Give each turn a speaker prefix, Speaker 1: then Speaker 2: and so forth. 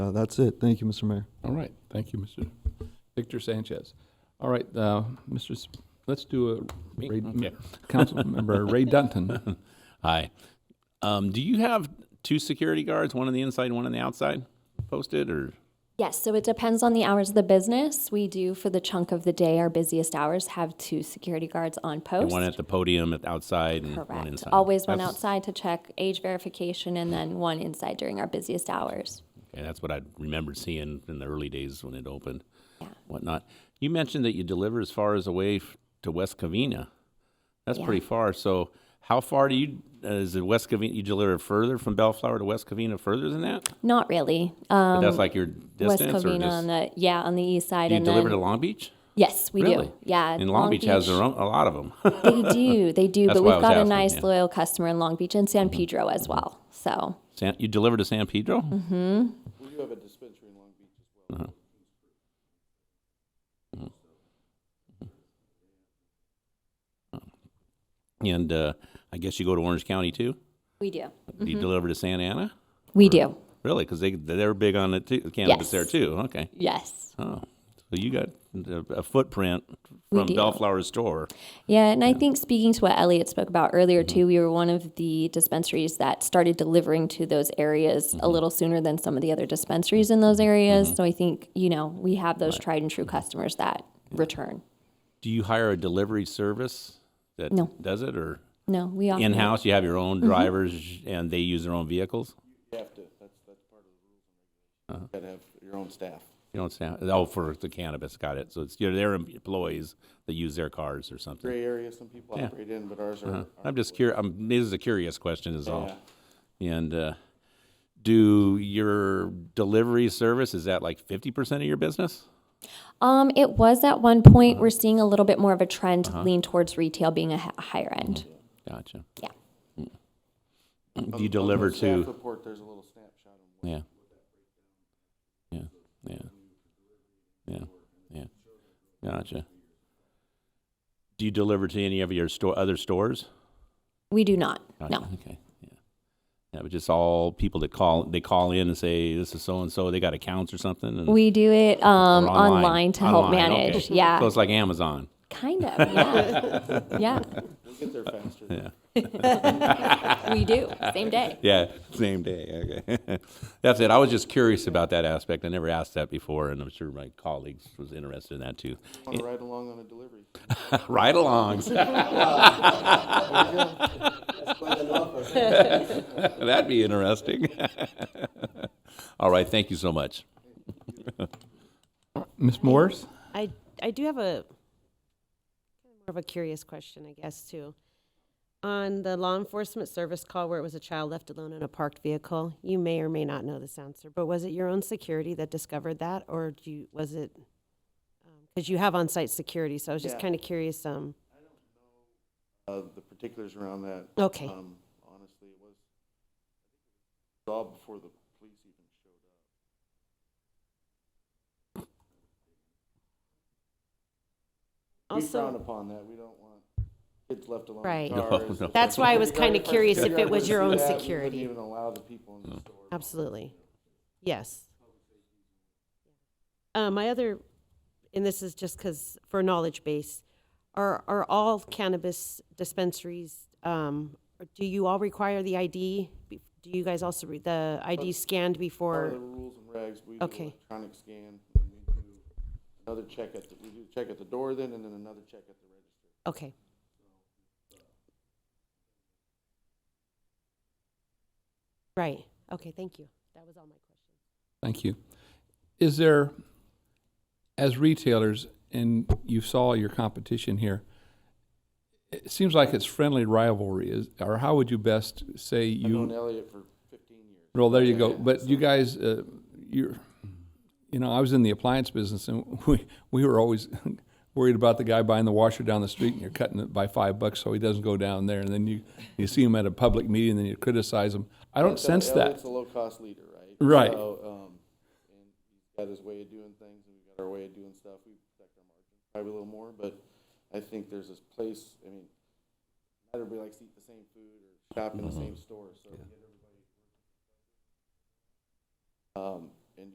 Speaker 1: Uh, that's it. Thank you, Mr. Mayor.
Speaker 2: All right, thank you, Mr. Victor Sanchez. All right, uh, Mr., S- let's do a,
Speaker 3: Me?
Speaker 2: Ray-
Speaker 3: Okay.
Speaker 2: Councilmember Ray Dunton.
Speaker 3: Hi. Um, do you have two security guards, one on the inside, one on the outside posted or?
Speaker 4: Yes, so it depends on the hours of the business. We do, for the chunk of the day, our busiest hours, have two security guards on
Speaker 3: and
Speaker 4: post.
Speaker 3: One at the podium at outside and one
Speaker 4: Correct.
Speaker 3: inside.
Speaker 4: Always one
Speaker 3: That's-
Speaker 4: outside to check age verification and then one inside during our busiest hours.
Speaker 3: Okay, that's what I remembered seeing in the early days when it opened,
Speaker 4: Yeah.
Speaker 3: whatnot. You mentioned that you deliver as far as away f- to West Covina. That's
Speaker 4: Yeah.
Speaker 3: pretty far. So how far do you, uh, is it West Covina, you deliver further from Bellflower to West Covina further than that?
Speaker 4: Not really.
Speaker 3: But
Speaker 4: Um,
Speaker 3: that's like your
Speaker 4: West
Speaker 3: distance or
Speaker 4: Covina on
Speaker 3: just,
Speaker 4: the, yeah, on the east side
Speaker 3: do you
Speaker 4: and
Speaker 3: deliver to
Speaker 4: then,
Speaker 3: Long Beach?
Speaker 4: yes, we
Speaker 3: Really?
Speaker 4: do. Yeah.
Speaker 3: And Long Beach has their own, a lot of them.
Speaker 4: They do, they do,
Speaker 3: That's
Speaker 4: but
Speaker 3: why I
Speaker 4: we've
Speaker 3: was
Speaker 4: got a
Speaker 3: asking,
Speaker 4: nice
Speaker 3: yeah. Mm-hmm.
Speaker 4: loyal customer in Long Beach and San Pedro as well, so.
Speaker 3: San, you deliver to San Pedro? Mm-hmm. We do have a dispensary in Long Beach as well. And uh, I guess you go to Orange County too?
Speaker 4: We do.
Speaker 3: Do you deliver to Santa Ana?
Speaker 4: We do,
Speaker 3: Really? Because they, they're big on it too, cannabis
Speaker 4: Yes.
Speaker 3: there too, okay.
Speaker 4: yes.
Speaker 3: Oh, so you got a a footprint
Speaker 4: We
Speaker 3: from
Speaker 4: do.
Speaker 3: Bellflower Store.
Speaker 4: Yeah, and I think speaking to what Elliot spoke about earlier
Speaker 3: Mm-hmm.
Speaker 4: too, we were one of the dispensaries that started delivering to those areas
Speaker 3: Mm-hmm.
Speaker 4: a little sooner than some of the other dispensaries in those areas. So I think, you know, we have those tried and true customers that return.
Speaker 3: Do you hire a delivery service that
Speaker 4: No. Mm-hmm.
Speaker 3: does it or?
Speaker 4: No, we offer
Speaker 3: In-house, you have your own drivers and they use their own vehicles?
Speaker 5: Gotta have your own staff.
Speaker 3: You don't sound, oh, for the cannabis, got it. So it's, you know, their employees that use their cars or something.
Speaker 5: Gray area some people
Speaker 3: Yeah.
Speaker 5: operate in, but ours are.
Speaker 3: Uh, I'm just curious, I'm, this is a curious question is all.
Speaker 5: Yeah.
Speaker 3: And, uh, do your delivery service, is that like fifty percent of your business?
Speaker 4: Um, it was at one point.
Speaker 3: Uh-huh.
Speaker 4: We're seeing a little bit more of a trend lean towards retail being a h- higher end.
Speaker 3: Mm-hmm. Gotcha.
Speaker 4: Yeah.
Speaker 3: Do you deliver
Speaker 5: Staff
Speaker 3: to,
Speaker 5: report, there's a little snapshot of
Speaker 3: yeah. Yeah, yeah. Yeah, yeah. Gotcha. Do you deliver to any of your store, other stores?
Speaker 4: We do not.
Speaker 3: Gotcha. Mm-hmm.
Speaker 4: No.
Speaker 3: Okay. Yeah. Yeah, but just all people that call, they call in and say, this is so-and-so, they got accounts or something? and-
Speaker 4: We do it um,
Speaker 3: or
Speaker 4: online. to help
Speaker 3: Online,
Speaker 4: manage.
Speaker 3: okay.
Speaker 4: Yeah.
Speaker 3: So it's like Amazon.
Speaker 4: Kind of. Yeah. yeah.
Speaker 5: it. Get there faster.
Speaker 4: We do. Same day.
Speaker 3: Yeah, same day. Okay. That's it. I was just curious about that aspect. I never asked that before, and I'm sure my colleagues was interested in that too.
Speaker 5: Wanna ride along on a delivery.
Speaker 3: Ride-alongs, that'd be interesting. All right, thank you so much.
Speaker 2: Ms. Morris?
Speaker 6: I, I do have a more of a curious question, I guess, too. On the law enforcement service call where it was a child left alone in a parked vehicle, you may or may not know this answer, but was it your own security that discovered that, or do you, was it? Because you have on-site security, so I was just
Speaker 5: Yeah.
Speaker 6: kind of curious. Um,
Speaker 5: Uh, the particulars around that.
Speaker 6: Okay.
Speaker 5: Um, honestly, it was, it was all before the police even showed up. We frown
Speaker 6: also,
Speaker 5: upon that. We don't want kids left alone
Speaker 6: Right.
Speaker 5: in
Speaker 6: No,
Speaker 5: cars.
Speaker 3: no.
Speaker 6: that's why I was
Speaker 5: Security
Speaker 6: kind of
Speaker 5: guard-
Speaker 6: curious if
Speaker 5: security
Speaker 6: it
Speaker 5: guard
Speaker 6: was your
Speaker 5: wouldn't
Speaker 6: own
Speaker 5: do that. We
Speaker 6: security. Mm-hmm.
Speaker 5: Wouldn't even allow the people in the store.
Speaker 6: Absolutely. Yes. Uh, my other, and this is just because for knowledge base, are, are all cannabis dispensaries, um, or do you all require the ID? Be- Do you guys also, re- the ID
Speaker 5: Part
Speaker 6: scanned
Speaker 5: of
Speaker 6: before?
Speaker 5: the rules and regs, we do
Speaker 6: Okay.
Speaker 5: electronic scan, and we do another check at, the we do check at the door then, and then another check at the register.
Speaker 6: Okay. Right, okay, thank you. That was all my questions.
Speaker 2: Thank you. Is there, as retailers, and you saw your competition here, it seems like it's friendly rivalry, is, or how would you best say
Speaker 5: I've known
Speaker 2: you?
Speaker 5: Elliot for fifteen years.
Speaker 2: Well, there you go. But you guys, uh, you're, you know, I was in the appliance business, and we we were always worried about the guy buying the washer down the street, and you're cutting it by five bucks so he doesn't go down there, and then you you see him at a public meeting, and then you criticize him. I don't
Speaker 5: So
Speaker 2: sense that.
Speaker 5: Elliot's a low-cost leader, right?
Speaker 2: Right.
Speaker 5: So, um, and he's got his way of doing things, and we've got our way of doing stuff. We protect our margins probably a little more, but I think there's this place, I mean, not everybody likes to eat the same food or shop in the same store, so. get everybody- Um,